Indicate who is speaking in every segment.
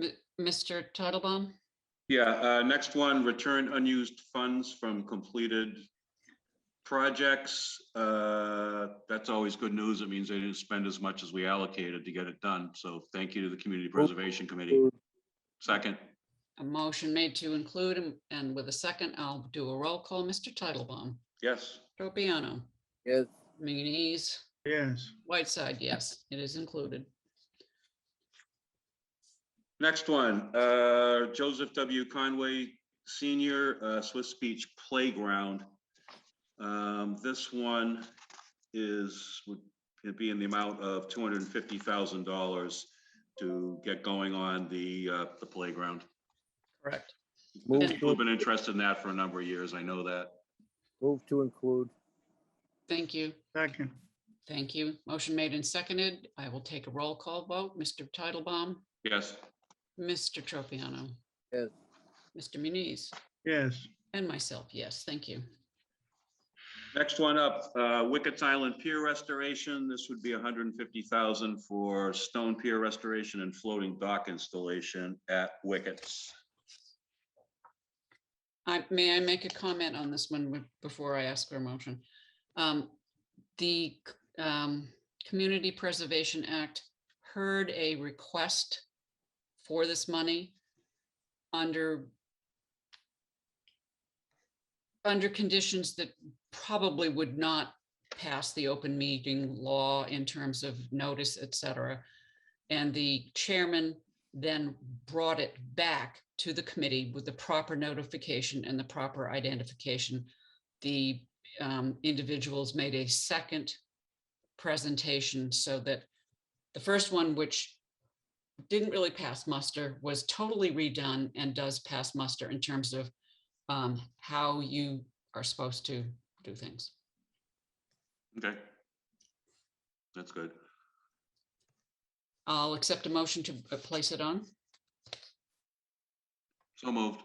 Speaker 1: M- Mr. Titlebaum?
Speaker 2: Yeah, uh, next one, return unused funds from completed projects. Uh, That's always good news. It means they didn't spend as much as we allocated to get it done. So thank you to the Community Preservation Committee. Second,
Speaker 1: A motion made to include and- and with a second, I'll do a roll call. Mr. Titlebaum?
Speaker 2: yes,
Speaker 1: Tropiano?
Speaker 3: Yes.
Speaker 1: Muniz?
Speaker 4: yes,
Speaker 1: Whiteside, yes, it is included.
Speaker 2: next one, uh, Joseph W. Conway Senior, uh, Swiss Beach Playground. Um, This one is, would be in the amount of two hundred and fifty thousand dollars to get going on the, uh, the playground.
Speaker 1: Correct.
Speaker 3: Move
Speaker 2: People have
Speaker 3: to,
Speaker 2: been interested in that for a number of years. I know that.
Speaker 3: move to include.
Speaker 1: Thank you,
Speaker 4: second,
Speaker 1: thank you. Motion made and seconded. I will take a roll call vote. Mr. Titlebaum?
Speaker 2: Yes,
Speaker 1: Mr. Tropiano?
Speaker 3: Yes.
Speaker 1: Mr. Muniz?
Speaker 4: yes,
Speaker 1: And myself, yes, thank you.
Speaker 2: next one up, uh, Wickets Island Pier Restoration. This would be $150,000 for stone pier restoration and floating dock installation at Wickets.
Speaker 1: I, may I make a comment on this one with- before I ask for a motion? Um, The c- um, Community Preservation Act heard a request for this money under under conditions that probably would not pass the open meeting law in terms of notice, et cetera. And the chairman then brought it back to the committee with the proper notification and the proper identification. The um, individuals made a second presentation so that the first one, which didn't really pass muster, was totally redone and does pass muster in terms of um, how you are supposed to do things.
Speaker 2: Okay. That's good.
Speaker 1: I'll accept a motion to uh, place it on.
Speaker 2: So moved.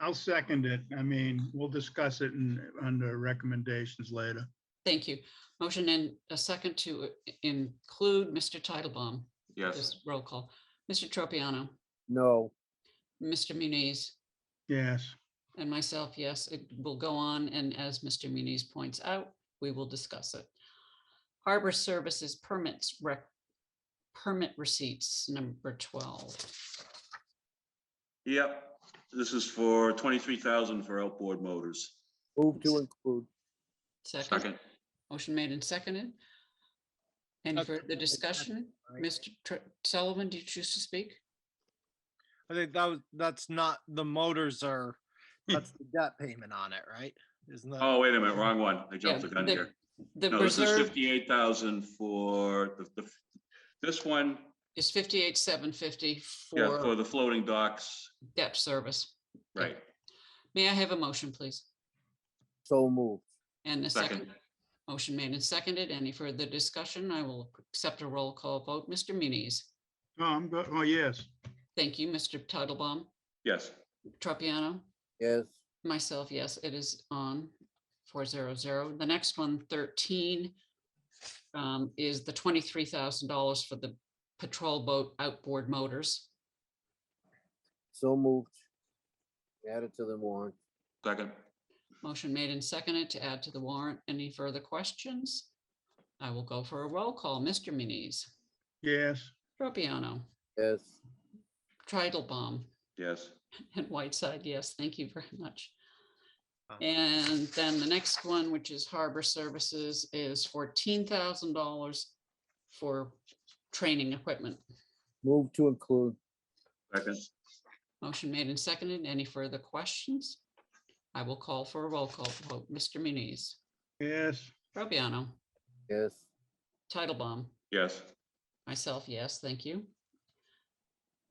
Speaker 4: I'll second it. I mean, we'll discuss it in, under recommendations later.
Speaker 1: Thank you. Motion and a second to uh, include Mr. Titlebaum.
Speaker 2: Yes,
Speaker 1: This roll call. Mr. Tropiano,
Speaker 3: No,
Speaker 1: Mr. Muniz,
Speaker 4: Yes,
Speaker 1: and myself, yes, it will go on. And as Mr. Muniz points out, we will discuss it. Harbor Services permits rec, permit receipts, number 12.
Speaker 2: yep. This is for twenty-three thousand for outboard motors.
Speaker 3: move to include.
Speaker 1: Second,
Speaker 2: Second,
Speaker 1: motion made and seconded. Any
Speaker 5: Okay.
Speaker 1: further discussion?
Speaker 3: Right.
Speaker 1: Mr. Tr- Sullivan, do you choose to speak?
Speaker 5: I think that was, that's not, the motors are, that's the debt payment on it, right? Isn't that,
Speaker 2: oh, wait a minute, wrong one. I
Speaker 1: Yeah,
Speaker 2: jumped the gun
Speaker 1: the-
Speaker 2: here.
Speaker 1: The
Speaker 2: No, this is
Speaker 1: reserve
Speaker 2: fifty-eight thousand for the, the, this one,
Speaker 1: is 58,750
Speaker 2: yeah, for
Speaker 1: for
Speaker 2: the floating docks,
Speaker 1: debt service.
Speaker 2: right?
Speaker 1: May I have a motion, please?
Speaker 3: So moved.
Speaker 1: And a
Speaker 2: Second.
Speaker 1: second. Motion made and seconded. Any further discussion? I will accept a roll call vote. Mr. Muniz.
Speaker 4: oh, I'm good, oh, yes,
Speaker 1: Thank you, Mr. Titlebaum.
Speaker 2: Yes,
Speaker 1: Tropiano,
Speaker 3: Yes,
Speaker 1: myself, yes, it is on four zero zero. The next one, 13, um, is the twenty-three thousand dollars for the patrol boat outboard motors.
Speaker 3: so moved. Add it to the warrant.
Speaker 2: second,
Speaker 1: Motion made and seconded to add to the warrant. Any further questions? I will go for a roll call. Mr. Muniz,
Speaker 4: yes,
Speaker 1: Tropiano,
Speaker 3: Yes,
Speaker 1: Titlebaum,
Speaker 2: yes,
Speaker 1: And Whiteside, yes, thank you very much.
Speaker 5: Um,
Speaker 1: And then the next one, which is Harbor Services, is fourteen thousand dollars for training equipment.
Speaker 3: move to include.
Speaker 2: second,
Speaker 1: Motion made and seconded. Any further questions? I will call for a roll call vote. Mr. Muniz,
Speaker 4: yes,
Speaker 1: Robiano,
Speaker 3: Yes,
Speaker 1: Titlebaum,
Speaker 2: yes,
Speaker 1: myself, yes, thank you.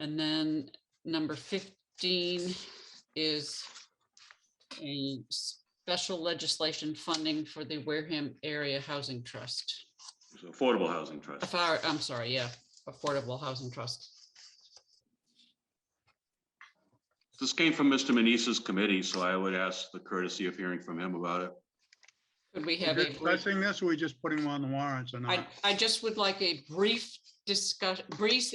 Speaker 1: And then number fifteen is a special legislation funding for the Wareham Area Housing Trust.
Speaker 2: It's Affordable Housing Trust.
Speaker 1: Afar- I'm sorry, yeah, Affordable Housing Trust.
Speaker 2: This came from Mr. Manise's committee, so I would ask the courtesy of hearing from him about it.
Speaker 1: Could we
Speaker 4: We're
Speaker 1: have a, brief-
Speaker 4: discussing this, or we just putting them on the warrants or
Speaker 1: I,
Speaker 4: not?
Speaker 1: I just would like a brief discuss, brief,